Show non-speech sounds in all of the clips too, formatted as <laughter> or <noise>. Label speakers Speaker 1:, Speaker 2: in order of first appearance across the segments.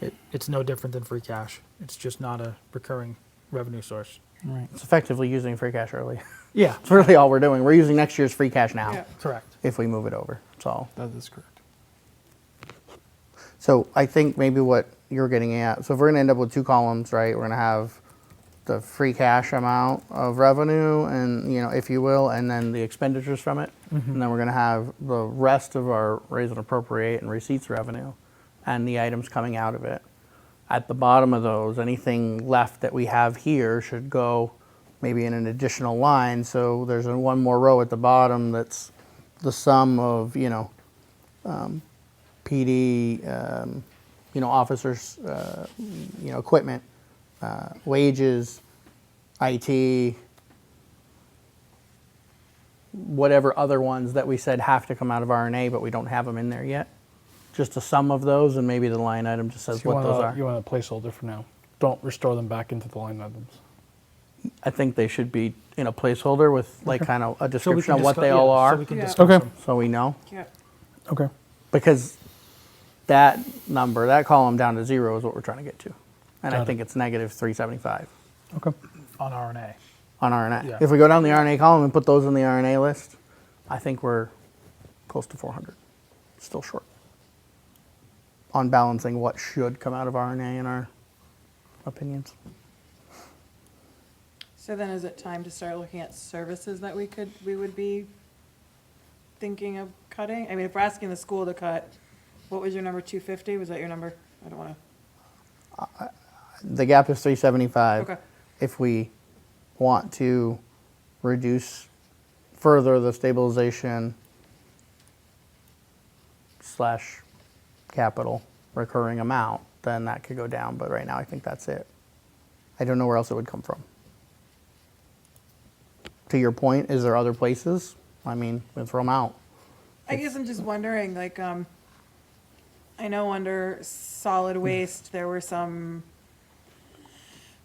Speaker 1: It, it's no different than free cash. It's just not a recurring revenue source.
Speaker 2: Right. It's effectively using free cash early. <laughs>
Speaker 1: Yeah,
Speaker 2: It's really all we're doing. We're using next year's free cash now
Speaker 3: Yeah.
Speaker 1: correct.
Speaker 2: if we move it over. That's all.
Speaker 3: That is correct.
Speaker 2: So I think maybe what you're getting at. So if we're going to end up with two columns, right? We're going to have the free cash amount of revenue, and you know, if you will, and then the expenditures from it, and then we're going to have the rest of our raise and appropriate and receipts revenue, and the items coming out of it. At the bottom of those, anything left that we have here should go maybe in an additional line. So there's a, one more row at the bottom that's the sum of you know PD, um, you know, officers, uh, you know, equipment, uh, wages, IT, whatever other ones that we said have to come out of RNA, but we don't have them in there yet. Just a sum of those, and maybe the line item just says
Speaker 3: So you
Speaker 2: what
Speaker 3: want
Speaker 2: those
Speaker 3: a-
Speaker 2: are.
Speaker 3: You want a placeholder for now. Don't restore them back into the line items.
Speaker 2: I think they should be in a placeholder with like kind of a
Speaker 1: So we
Speaker 2: description
Speaker 1: can
Speaker 2: of what
Speaker 1: discuss-
Speaker 2: they
Speaker 1: yeah,
Speaker 2: all are,
Speaker 1: So we can
Speaker 3: Yeah.
Speaker 1: discuss
Speaker 3: Okay.
Speaker 1: them.
Speaker 2: so we know.
Speaker 3: Yeah. Okay.
Speaker 2: because that number, that column down to zero is what we're trying to get to. And
Speaker 3: Got
Speaker 2: I
Speaker 3: it.
Speaker 2: think it's negative 375
Speaker 3: Okay.
Speaker 1: on RNA.
Speaker 2: on RNA.
Speaker 1: Yeah.
Speaker 2: If we go down the RNA column and put those in the RNA list, I think we're close to 400. Still short on balancing what should come out of RNA in our opinions.
Speaker 4: So then is it time to start looking at services that we could, we would be thinking of cutting? I mean, if we're asking the school to cut, what was your number, two fifty? Was that your number? I don't wanna,
Speaker 2: The gap is 375.
Speaker 4: Okay.
Speaker 2: If we want to reduce further the stabilization slash capital recurring amount, then that could go down, but right now I think that's it. I don't know where else it would come from. To your point, is there other places? I mean, we throw them out.
Speaker 4: I guess I'm just wondering, like, um, I know under solid waste, there were some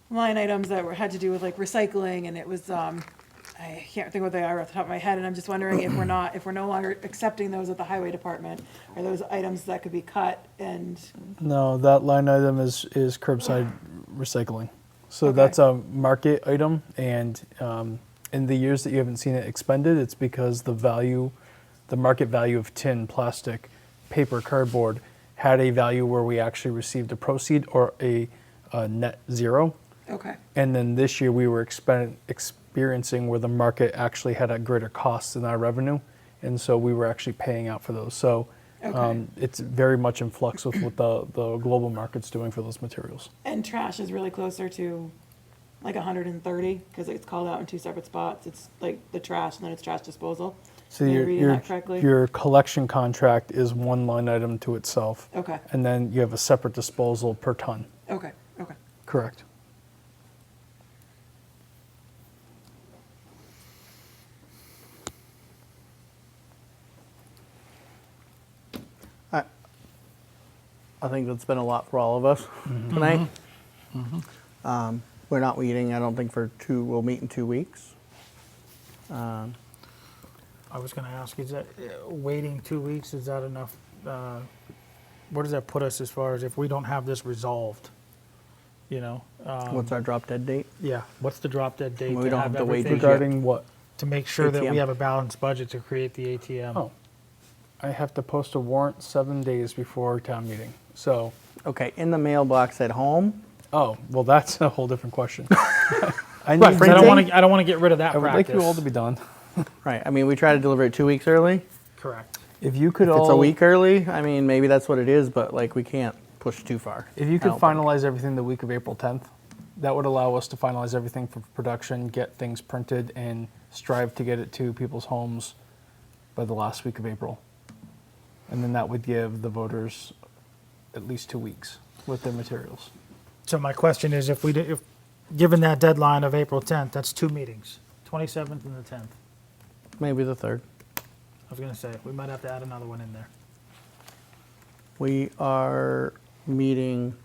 Speaker 4: line items that were, had to do with like recycling and it was, um, I can't think what they are off the top of my head and I'm just wondering if we're not, if we're no longer accepting those at the highway department, are those items that could be cut and
Speaker 3: No, that line item is, is curbside recycling. So
Speaker 4: Okay.
Speaker 3: that's a market item, and um, in the years that you haven't seen it expended, it's because the value, the market value of tin, plastic, paper, cardboard had a value where we actually received a proceed or a, a net zero.
Speaker 4: Okay,
Speaker 3: And then this year we were expen- experiencing where the market actually had a greater cost than our revenue. And so we were actually paying out for those. So
Speaker 4: Okay.
Speaker 3: um, it's very much in flux with what the, the global market's doing for those materials.
Speaker 4: and trash is really closer to like hundred and thirty, because it's called out in two separate spots, it's like the trash and then it's trash disposal.
Speaker 3: So
Speaker 4: Am I
Speaker 3: your,
Speaker 4: reading
Speaker 3: your,
Speaker 4: that correctly?
Speaker 3: your collection contract is one line item to itself.
Speaker 4: Okay.
Speaker 3: And then you have a separate disposal per ton.
Speaker 4: Okay, okay,
Speaker 3: Correct.
Speaker 2: I think that's been a lot for all of us
Speaker 3: Mm-hmm.
Speaker 2: tonight. Um, we're not meeting, I don't think, for two, we'll meet in two weeks.
Speaker 1: I was going to ask, is that uh, waiting two weeks? Is that enough? Uh, where does that put us as far as if we don't have this resolved? You know, um,
Speaker 2: What's our drop dead date?
Speaker 1: yeah. What's the drop dead date?
Speaker 2: We don't have to wait
Speaker 1: everything-
Speaker 2: because-
Speaker 3: Regarding what?
Speaker 1: to make sure that
Speaker 2: ATM.
Speaker 1: we have a balanced budget to create the ATM.
Speaker 3: Oh, I have to post a warrant seven days before town meeting. So
Speaker 2: Okay, in the mailbox at home.
Speaker 3: Oh, well, that's a whole different <laughs> question.
Speaker 1: Right,
Speaker 3: I need
Speaker 1: 'cause I don't
Speaker 2: Printing?
Speaker 1: want to. I don't want to get rid of that
Speaker 3: I would like
Speaker 1: practice.
Speaker 3: you all to be done.
Speaker 2: Right. I mean, we try to deliver it two weeks early.
Speaker 1: correct.
Speaker 3: If you could
Speaker 2: If
Speaker 3: all,
Speaker 2: it's a week early, I mean, maybe that's what it is, but like we can't push too far.
Speaker 3: If you
Speaker 2: I
Speaker 3: could
Speaker 2: don't think.
Speaker 3: finalize everything the week of April 10th, that would allow us to finalize everything for production, get things printed, and strive to get it to people's homes by the last week of April. And then that would give the voters at least two weeks with their materials.
Speaker 1: So my question is, if we did, if given that deadline of April 10th, that's two meetings, 27th and the 10th.
Speaker 2: maybe the third.
Speaker 1: I was going to say we might have to add another one in there.
Speaker 2: We are meeting,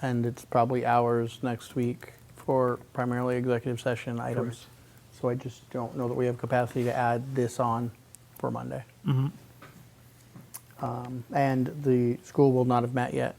Speaker 2: and it's probably hours next week for primarily executive session items. So I just don't know that we have capacity to add this on for Monday. Um, And the school will not have met yet